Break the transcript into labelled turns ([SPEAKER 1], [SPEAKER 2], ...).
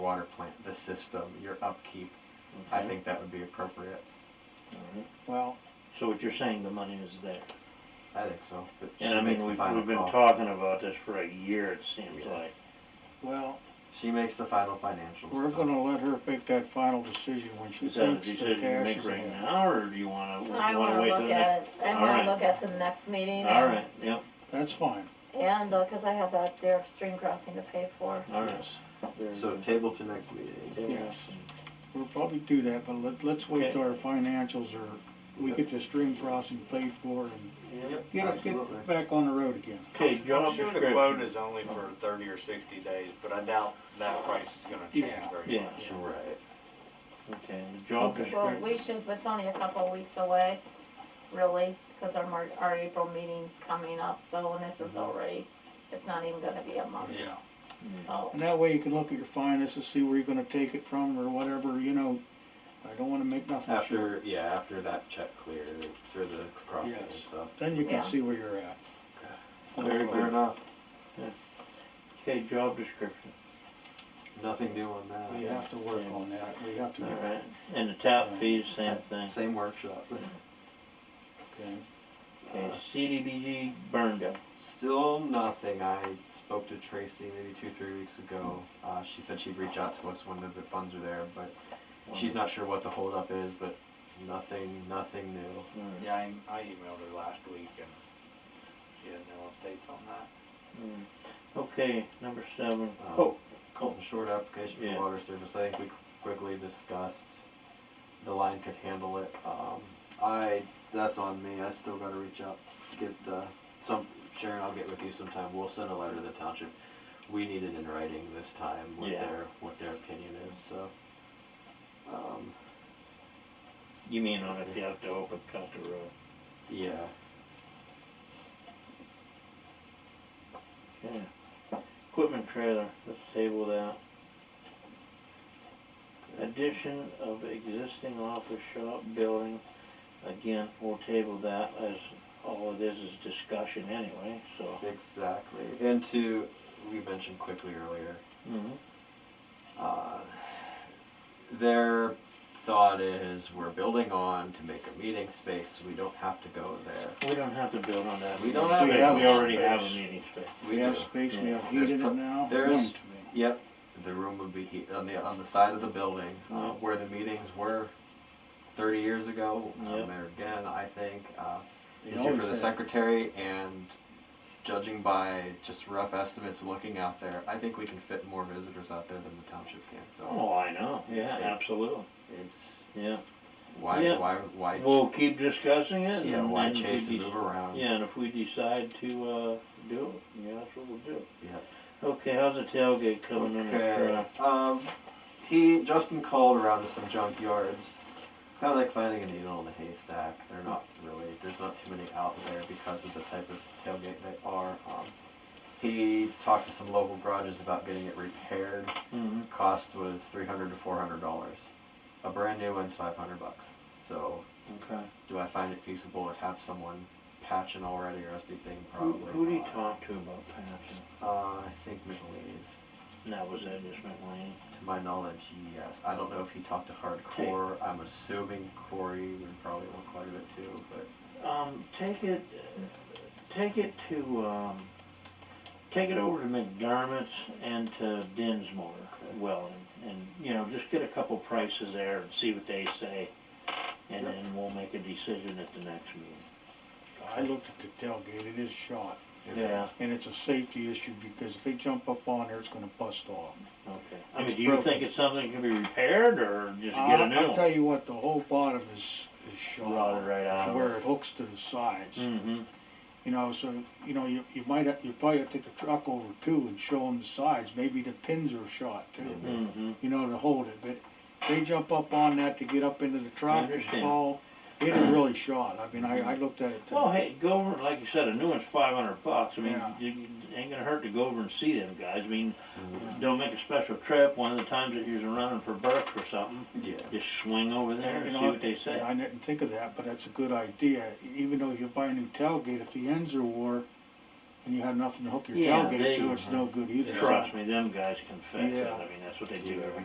[SPEAKER 1] water plant, the system, your upkeep, I think that would be appropriate.
[SPEAKER 2] Alright.
[SPEAKER 3] Well,
[SPEAKER 2] So what you're saying, the money is there.
[SPEAKER 1] I think so. but
[SPEAKER 2] And
[SPEAKER 1] she
[SPEAKER 2] I mean,
[SPEAKER 1] makes the
[SPEAKER 2] we've,
[SPEAKER 1] final
[SPEAKER 2] we've been
[SPEAKER 1] call.
[SPEAKER 2] talking about this for a year, it seems
[SPEAKER 1] Yeah.
[SPEAKER 2] like.
[SPEAKER 3] well,
[SPEAKER 1] She makes the final financials.
[SPEAKER 3] we're
[SPEAKER 1] so.
[SPEAKER 3] gonna let her make that final decision when she
[SPEAKER 2] Is that a
[SPEAKER 3] thinks the
[SPEAKER 2] decision you
[SPEAKER 3] cash
[SPEAKER 2] make
[SPEAKER 3] is
[SPEAKER 2] right
[SPEAKER 3] in.
[SPEAKER 2] now, or do you wanna,
[SPEAKER 4] I
[SPEAKER 2] you wanna
[SPEAKER 4] wanna
[SPEAKER 2] wait till
[SPEAKER 4] look
[SPEAKER 2] the next?
[SPEAKER 4] at it, I
[SPEAKER 2] All right.
[SPEAKER 4] wanna look at the next meeting and,
[SPEAKER 2] Alright, yep,
[SPEAKER 3] That's fine,
[SPEAKER 4] and, uh 'cause cause I have that Derek Stream crossing to pay for.
[SPEAKER 2] alright.
[SPEAKER 1] So table to next meeting.
[SPEAKER 3] yes. We'll probably do that, but let, let's
[SPEAKER 2] Okay.
[SPEAKER 3] wait till our financials are, we get the stream crossing paid for and get,
[SPEAKER 1] Absolutely.
[SPEAKER 3] get back on the road again.
[SPEAKER 2] Okay,
[SPEAKER 5] I'm
[SPEAKER 2] job
[SPEAKER 5] sure the quote
[SPEAKER 2] description.
[SPEAKER 5] is only for thirty or sixty days, but I doubt that price is gonna change
[SPEAKER 3] Yeah.
[SPEAKER 5] very
[SPEAKER 2] Yeah,
[SPEAKER 5] much.
[SPEAKER 1] Right.
[SPEAKER 2] okay, the job
[SPEAKER 3] Okay.
[SPEAKER 2] description.
[SPEAKER 4] Well, we should, it's only a couple of weeks away, really, cause our Mar- our April meeting's coming up, so when this is
[SPEAKER 2] Mm-hmm.
[SPEAKER 4] already, it's not even gonna be a month,
[SPEAKER 5] Yeah,
[SPEAKER 4] so.
[SPEAKER 3] And that way you can look at your finances, see where you're gonna take it from or whatever, you know, I don't wanna make nothing sure.
[SPEAKER 1] After, yeah, after that check clear for the crossing and
[SPEAKER 3] Yes.
[SPEAKER 1] stuff.
[SPEAKER 3] Then you can
[SPEAKER 4] Yeah.
[SPEAKER 3] see where you're at.
[SPEAKER 1] Fair
[SPEAKER 2] Very good.
[SPEAKER 1] enough,
[SPEAKER 2] Okay, job description,
[SPEAKER 1] nothing new on that.
[SPEAKER 3] We have to work on that, we have to, okay.
[SPEAKER 2] alright. And the tap fees, same thing.
[SPEAKER 1] Same workshop.
[SPEAKER 2] Okay, CDBG burn down.
[SPEAKER 1] Still nothing. I spoke to Tracy maybe two, three weeks ago. Uh, she said she'd reach out to us when the funds are there, but she's not sure what the holdup is, but nothing, nothing new.
[SPEAKER 2] Alright.
[SPEAKER 5] yeah, I, I emailed her last week and she had no updates on that.
[SPEAKER 2] Mm. Okay, number seven.
[SPEAKER 1] Um,
[SPEAKER 2] Oh,
[SPEAKER 1] Colton Short application
[SPEAKER 2] Yeah.
[SPEAKER 1] for water service, I think we quickly discussed the line could handle it. Um, I, that's on me, I still gotta reach out, get, uh, some, Sharon, I'll get with you sometime, we'll send a letter to the township. We need it in writing this time, what
[SPEAKER 2] Yeah.
[SPEAKER 1] their, what their opinion is, so. Um,
[SPEAKER 2] you mean on if you have to open cut the road?
[SPEAKER 1] yeah,
[SPEAKER 2] Okay. Equipment trailer, let's table that. Addition of existing office shop building, again, we'll table that as all it is is discussion anyway, so.
[SPEAKER 1] exactly, and to, we mentioned quickly earlier,
[SPEAKER 2] Mhm.
[SPEAKER 1] Mm-hmm. Uh, Their thought is, we're building on to make a meeting space, we don't have to go there.
[SPEAKER 2] We don't have to build on that.
[SPEAKER 1] We don't
[SPEAKER 2] meeting
[SPEAKER 1] have
[SPEAKER 2] space.
[SPEAKER 3] to.
[SPEAKER 2] We already
[SPEAKER 1] Space.
[SPEAKER 2] have a meeting space.
[SPEAKER 3] We have space, we have heat
[SPEAKER 1] There's
[SPEAKER 3] in
[SPEAKER 1] pro-
[SPEAKER 3] it now.
[SPEAKER 1] there's-
[SPEAKER 3] Going to be.
[SPEAKER 1] Yep, the room would be he- on the, on the side of the building, uh,
[SPEAKER 2] Yeah.
[SPEAKER 1] where the meetings were thirty years ago. um,
[SPEAKER 2] Yeah.
[SPEAKER 1] There again, I think, uh,
[SPEAKER 3] They
[SPEAKER 1] easier for
[SPEAKER 3] always
[SPEAKER 1] the
[SPEAKER 3] have-
[SPEAKER 1] secretary and judging by just rough estimates looking out there, I think we can fit more visitors out there than the township can, so.
[SPEAKER 2] Oh, I know, yeah,
[SPEAKER 1] Yeah.
[SPEAKER 2] absolutely,
[SPEAKER 1] It's,
[SPEAKER 2] yeah.
[SPEAKER 1] why,
[SPEAKER 2] Yeah.
[SPEAKER 1] why, why?
[SPEAKER 2] We'll keep discussing it.
[SPEAKER 1] Yeah,
[SPEAKER 2] and-
[SPEAKER 1] why
[SPEAKER 2] and if we
[SPEAKER 1] chase and
[SPEAKER 2] dec-
[SPEAKER 1] move around?
[SPEAKER 2] Yeah, and if we decide to, uh, do it, yeah, that's what we'll do.
[SPEAKER 1] Yeah.
[SPEAKER 2] Okay, how's the tailgate coming in the
[SPEAKER 1] Okay. Um, he Justin called around to some junkyards. It's kind of like finding a needle in a haystack. They're not really. There's not too many out there because of the type of tailgate they are. Um, he talked to some local garages about getting it repaired.
[SPEAKER 2] Mm-hmm.
[SPEAKER 1] Cost was three hundred to four hundred dollars. A brand new one's five hundred bucks. So,
[SPEAKER 2] Okay.
[SPEAKER 1] do I find it feasible to have someone patch an already rusty thing?
[SPEAKER 2] Who,
[SPEAKER 1] Probably.
[SPEAKER 2] who do you
[SPEAKER 1] not.
[SPEAKER 2] talk to about passing?
[SPEAKER 1] Uh, I think McLean's.
[SPEAKER 2] And that was it, just McLean.
[SPEAKER 1] To my knowledge, yes. I don't know if he talked to hardcore. I'm assuming Corey would probably want quite a bit too, but
[SPEAKER 2] Um, take it, take it to, um, take it over to McDermott's and to Dinsmore,
[SPEAKER 1] Okay.
[SPEAKER 2] Welland. And, you know, just get a couple prices there and see what they say. And
[SPEAKER 1] Yep.
[SPEAKER 2] then we'll make a decision at the next meeting.
[SPEAKER 3] I looked at the tailgate, it is shot,
[SPEAKER 2] Yeah,
[SPEAKER 3] and it's a safety issue because if they jump up on there, it's gonna bust off.
[SPEAKER 2] okay. I mean,
[SPEAKER 3] It's
[SPEAKER 2] do you think
[SPEAKER 3] broken.
[SPEAKER 2] it's something that can be repaired or just get a
[SPEAKER 3] I-
[SPEAKER 2] new
[SPEAKER 3] I'll tell
[SPEAKER 2] one?
[SPEAKER 3] you what, the whole bottom is, is
[SPEAKER 2] Rotted
[SPEAKER 3] shot,
[SPEAKER 2] right out
[SPEAKER 3] to
[SPEAKER 2] of
[SPEAKER 3] where
[SPEAKER 2] it.
[SPEAKER 3] it hooks to the sides,
[SPEAKER 2] Mm-hmm,
[SPEAKER 3] you know, so, you know, you, you might, have- you probably have to take the truck over too and show them the sides, maybe the pins are shot too,
[SPEAKER 2] mm-hmm.
[SPEAKER 3] you know, to hold it, but they jump up on that to get up into the truck and
[SPEAKER 2] understand.
[SPEAKER 3] fall, it is really shot, I mean, I, I looked at it. today.
[SPEAKER 2] Well, hey, go over, like you said, a new one's five hundred bucks, I mean,
[SPEAKER 3] Yeah.
[SPEAKER 2] you, you- it ain't gonna hurt to go over and see them guys, I mean,
[SPEAKER 3] Mhm.
[SPEAKER 2] don't make a special trip, one of the times that you're running for Burke or something,
[SPEAKER 1] yeah.
[SPEAKER 2] just swing over there
[SPEAKER 3] You
[SPEAKER 2] and
[SPEAKER 3] know,
[SPEAKER 2] see what they say.
[SPEAKER 3] I didn't think of that, but that's a good idea, even though you buy a new tailgate, if the ends are wore, and you have nothing to hook your
[SPEAKER 2] Yeah,
[SPEAKER 3] tailgate
[SPEAKER 2] they-
[SPEAKER 3] to, it's no good either.
[SPEAKER 2] Trust me, them guys can fix it,
[SPEAKER 3] Yeah.
[SPEAKER 2] I mean, that's what they do
[SPEAKER 1] Yeah.
[SPEAKER 2] every